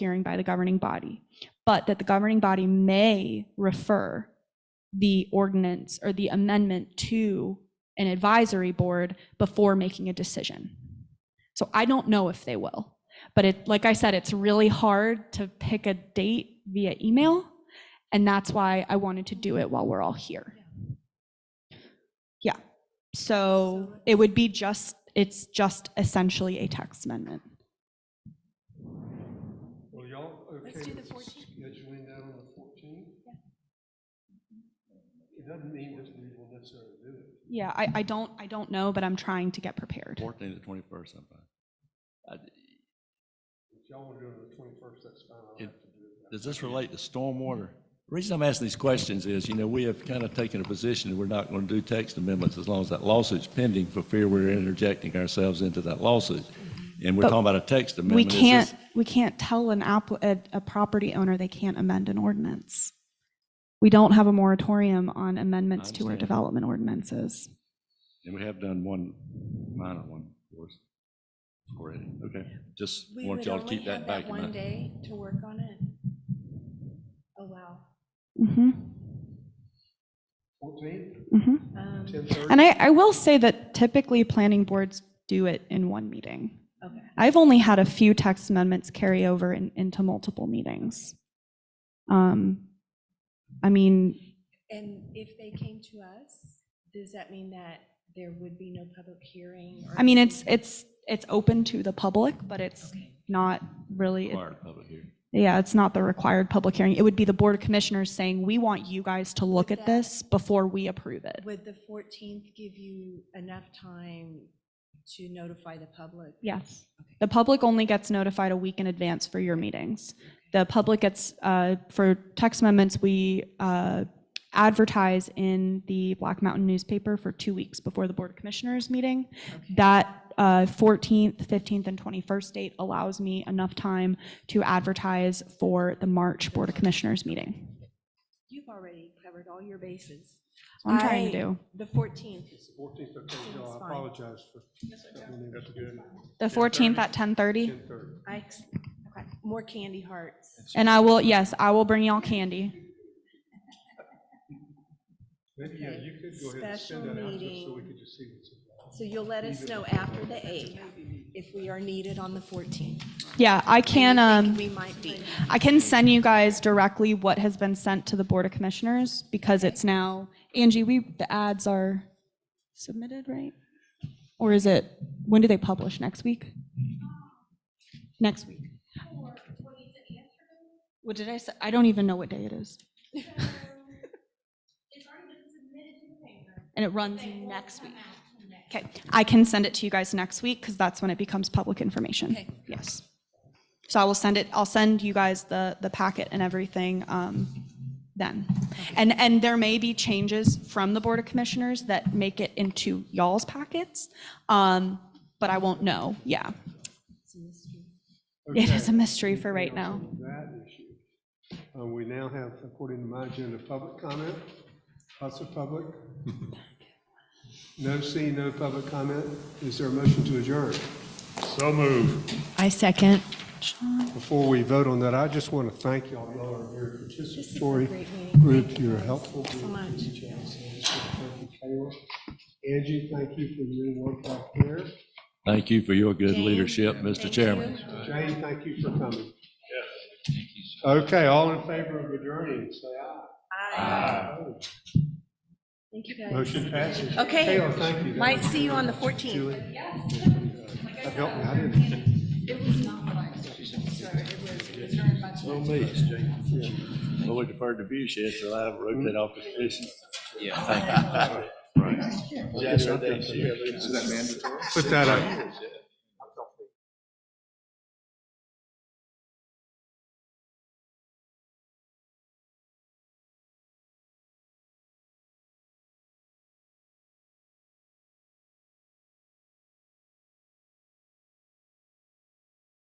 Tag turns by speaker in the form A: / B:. A: hearing by the governing body, but that the governing body may refer the ordinance or the amendment to an advisory board before making a decision. So I don't know if they will, but it, like I said, it's really hard to pick a date via email. And that's why I wanted to do it while we're all here. Yeah, so it would be just, it's just essentially a text amendment.
B: Well, y'all, okay.
C: Let's do the
B: with
C: 14th.
B: Scheduling that on the fourteenth? It doesn't mean that we will necessarily do it.
A: Yeah, I, I don't, I don't know, but I'm trying to get prepared.
D: Fourteenth to twenty-first, I'm fine. Uh,
B: If y'all want to do it on the twenty-first, that's fine. I'll
D: It-
B: have to do it.
D: Does this relate to stormwater? The reason I'm asking these questions is, you know, we have kind of taken a position that we're not going to do text amendments as long as that lawsuit's pending for fear we're interjecting ourselves into that lawsuit. And we're
A: But
D: talking about a text amendment.
A: We
D: Is this-
A: can't, we can't tell an app, a, a property owner they can't amend an ordinance. We don't have a moratorium on amendments to our
D: understand.
A: development ordinances.
D: And we have done one, minor one, of course, already. Okay, just
C: We
D: want
C: would
D: y'all to
C: only
D: keep
C: have
D: that back
C: that
D: in
C: one
D: mind.
C: day to work on it. Oh, wow.
A: Mhm,
B: Fourteenth,
A: mhm.
C: Um,
B: ten thirty?
A: And I, I will say that typically planning boards do it in one meeting.
C: Okay.
A: I've only had a few text amendments carry over in- into multiple meetings. Um, I mean,
C: And if they came to us, does that mean that there would be no public hearing? or
A: I mean, it's,
C: anything?
A: it's, it's open to the public, but it's
C: Okay.
A: not really,
D: Required public hearing.
A: yeah, it's not the required public hearing. It would be the Board of Commissioners saying, we want you guys to look
C: Would
A: at
C: that-
A: this before we approve it.
C: Would the 14th give you enough time to notify the public?
A: Yes. The public only gets notified a week in advance for your meetings. The public gets, uh, for text amendments, we uh, advertise in the Black Mountain newspaper for two weeks before the Board of Commissioners meeting.
C: Okay.
A: That uh, 14th, 15th, and 21st date allows me enough time to advertise for the March Board of Commissioners meeting.
C: You've already covered all your bases.
A: I'm trying to
C: I-
A: do.
C: The 14th.
B: It's the fourteenth, okay,
C: That's
B: y'all, I
C: fine.
B: apologize for. That's good.
A: The 14th at 10:30.
B: Ten thirty.
C: I, ex- okay, more candy hearts.
A: And I will, yes, I will bring y'all candy.
B: Maybe, yeah, you could go ahead and
C: Special
B: send that out just so we
C: meeting.
B: could just see what's. involved.
C: So you'll let us know after the 8th if we are needed on the 14th.
A: Yeah, I can,
C: And
A: um.
C: you think We might be.
A: I can send you guys directly what has been sent to the Board of Commissioners because it's now, Angie, we, the ads are submitted, right? Or is it, when do they publish? Next week? Next week. What did I say? I don't even know what day it is. And it runs next week. Okay, I can send it to you guys next week because that's when it becomes public information.
C: Okay.
A: Yes. So I will send it, I'll send you guys the, the packet and everything um, then. And, and there may be changes from the Board of Commissioners that make it into y'all's packets, um, but I won't know, yeah.
C: It's a mystery.
A: It is a
B: Okay.
A: mystery for right
B: Anything else
A: now.
B: on That issue. Uh, we now have, according to my agenda, public comment, lots of public. No see, no public comment. Is there a motion to adjourn?
E: So move.
C: I second.
B: Before we vote on that, I just want to thank y'all, y'all are your
C: This is a
B: participatory
C: great meeting.
B: group, you're helpful.
C: So much.
B: Thank you, Kayla. Angie, thank you for your work back there.
D: Thank you for your good
C: Jane,
D: leadership, Mr.
C: thank
D: Chairman.
C: you.
B: Jane, thank you for coming. Okay, all in favor of adjourning, say aye. Opposed?
C: Thank you, guys.
B: Motion passes.
C: Okay.
B: Kayla, thank you.
C: Might see you on the 14th.
B: Julie? That helped me, I didn't.
D: No me. Well, we deferred the view shed, so I rotate off the position. Yeah. Right.
B: Put that up.